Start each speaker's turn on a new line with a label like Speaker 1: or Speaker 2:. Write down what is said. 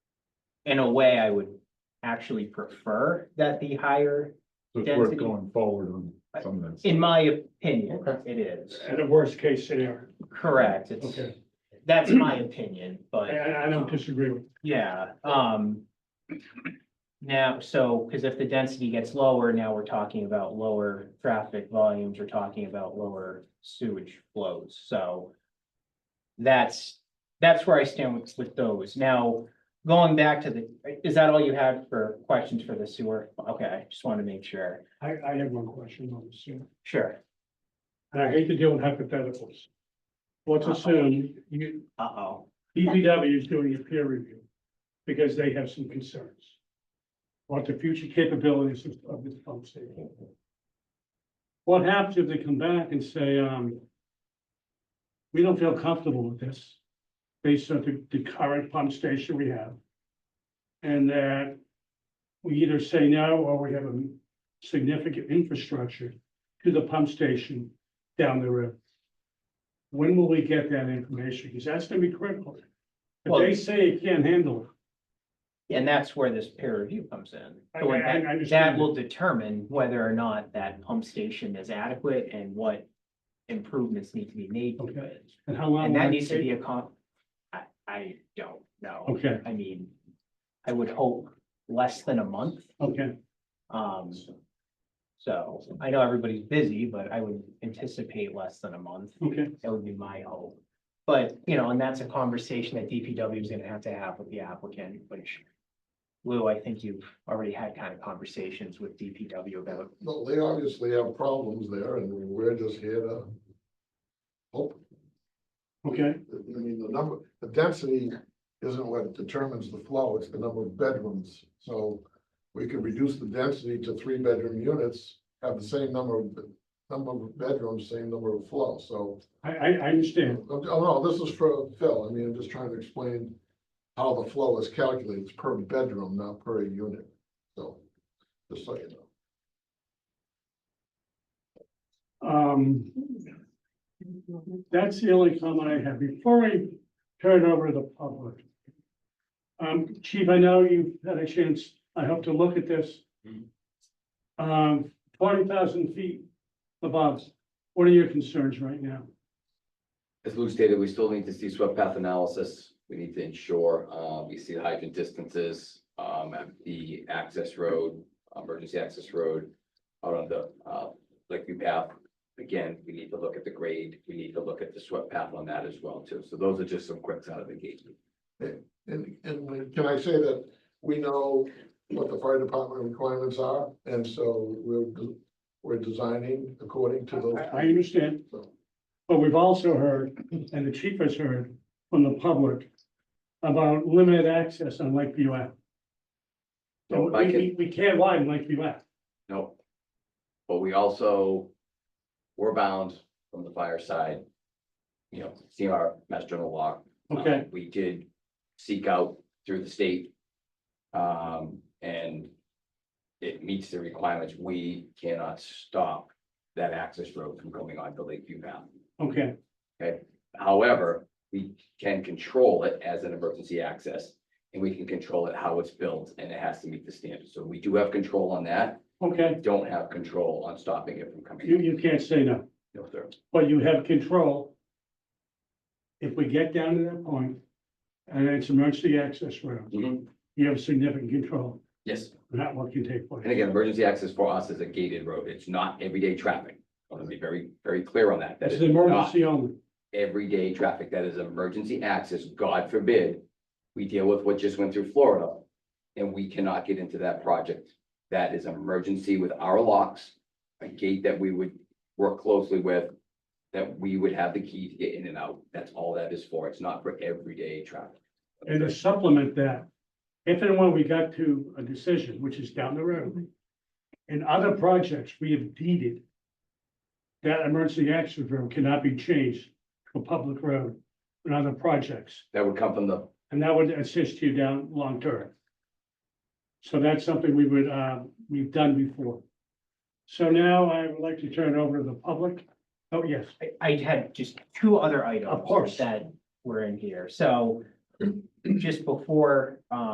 Speaker 1: in a way, I would actually prefer that be higher,
Speaker 2: So it's worth
Speaker 1: Density.
Speaker 2: going forward on some of this.
Speaker 1: in my opinion,
Speaker 2: Okay.
Speaker 1: it is.
Speaker 3: At a worst case scenario,
Speaker 1: Correct, it's,
Speaker 3: okay,
Speaker 1: that's my opinion,
Speaker 3: I,
Speaker 1: but,
Speaker 3: I I don't disagree with,
Speaker 1: yeah, um. Now, so, because if the density gets lower, now we're talking about lower traffic volumes, we're talking about lower sewage flows, so. That's, that's where I stand with, with those. Now, going back to the, is that all you had for questions for the sewer? Okay, just wanted to make sure.
Speaker 3: I, I have one question on this, yeah.
Speaker 1: Sure.
Speaker 3: and I hate to deal with hypotheticals. Let's assume you,
Speaker 1: Uh-oh.
Speaker 3: DPW is doing a peer review because they have some concerns. What the future capabilities of- of this pump station? What happens if they come back and say, um, we don't feel comfortable with this based on the, the current pump station we have? And that we either say no or we have a significant infrastructure to the pump station down the road. When will we get that information? Because that's gonna be critical. If
Speaker 1: Well-
Speaker 3: they say you can't handle
Speaker 1: And that's where this peer review comes in.
Speaker 3: I-
Speaker 1: So when
Speaker 3: I- I
Speaker 1: that- That
Speaker 3: understand.
Speaker 1: will determine whether or not that pump station is adequate and what improvements need to be made to
Speaker 3: Okay. Um,
Speaker 1: it.
Speaker 3: it, and how long?
Speaker 1: And
Speaker 3: will
Speaker 1: that needs to
Speaker 3: take?
Speaker 1: be a con, I, I don't know.
Speaker 3: Okay,
Speaker 1: I mean, I would hope less than a month.
Speaker 3: okay,
Speaker 1: Um, so I know everybody's busy, but I would anticipate less than a month.
Speaker 3: okay,
Speaker 1: That would be my hope. But, you know, and that's a conversation that DPW is gonna have to have with the applicant, which. Lou, I think you've already had kind of conversations with DPW about,
Speaker 4: No, they obviously have problems there and we're just here to. Hope,
Speaker 3: okay,
Speaker 4: I mean, the number, the density isn't what determines the flow, it's the number of bedrooms. So we could reduce the density to three bedroom units, have the same number of, number of bedrooms, same number of flow, so.
Speaker 3: I, I, I understand,
Speaker 4: Oh, no, this is for Phil, I mean, I'm just trying to explain how the flow is calculated, it's per bedroom, not per unit, so, just so you know.
Speaker 3: um. That's the only comment I have, before I turn it over to the public. Um, chief, I know you've had a chance, I hope to look at this. Um, forty thousand feet above, what are your concerns right now?
Speaker 5: As Lou stated, we still need to see swept path analysis. We need to ensure, uh, we see the hydrant distances, um, at the access road, emergency access road. Out on the, uh, Lakeview path. Again, we need to look at the grade. We need to look at the swept path on that as well too. So those are just some quicks out of the gate.
Speaker 4: And, and we- can I say that we know what the fire department requirements are, and so we're, de- we're designing according to those.
Speaker 3: I, I understand,
Speaker 4: So,
Speaker 3: But we've also heard, and the chief has heard from the public about limited access on Lakeview Ave. So we, we- we can't widen Lakeview Ave.
Speaker 5: No. But we also, we're bound from the fire side. You know, see our master general law,
Speaker 3: Okay,
Speaker 5: Um, We did seek out through the state. Um, and it meets the requirements. We cannot stop that access road from going on to Lakeview Path.
Speaker 3: okay,
Speaker 5: However, we can control it as an emergency access and we can control it how it's built and it has to meet the standards. So we do have control on that.
Speaker 3: okay.
Speaker 5: We Don't have control on stopping it from coming.
Speaker 3: You, you can't say no,
Speaker 5: No, sir.
Speaker 3: but you have control. If we get down to that point, and it's emergency access road,
Speaker 5: Mhm.
Speaker 3: you have significant control,
Speaker 5: Yes.
Speaker 3: not what can take place.
Speaker 5: And again, emergency access for us is a gated road. It's not everyday traffic. I want to be very, very clear on that. That
Speaker 3: It's
Speaker 5: is
Speaker 3: an
Speaker 5: not-
Speaker 3: emergency only,
Speaker 5: everyday traffic that is emergency access, God forbid. We deal with what just went through Florida and we cannot get into that project. That is emergency with our locks, a gate that we would work closely with. That we would have the key to get in and out. That's all that is for. It's not for everyday traffic.
Speaker 3: and to supplement that, if and when we got to a decision, which is down the road. In other projects, we have deeded. That emergency access road cannot be changed to a public road in other projects,
Speaker 5: That would come from the,
Speaker 3: and that would assist you down long term. So that's something we would, uh, we've done before. So now I would like to turn it over to the public. Oh, yes,
Speaker 1: I- I had just two other items.
Speaker 3: Of course.
Speaker 1: That were in here, so just before, um.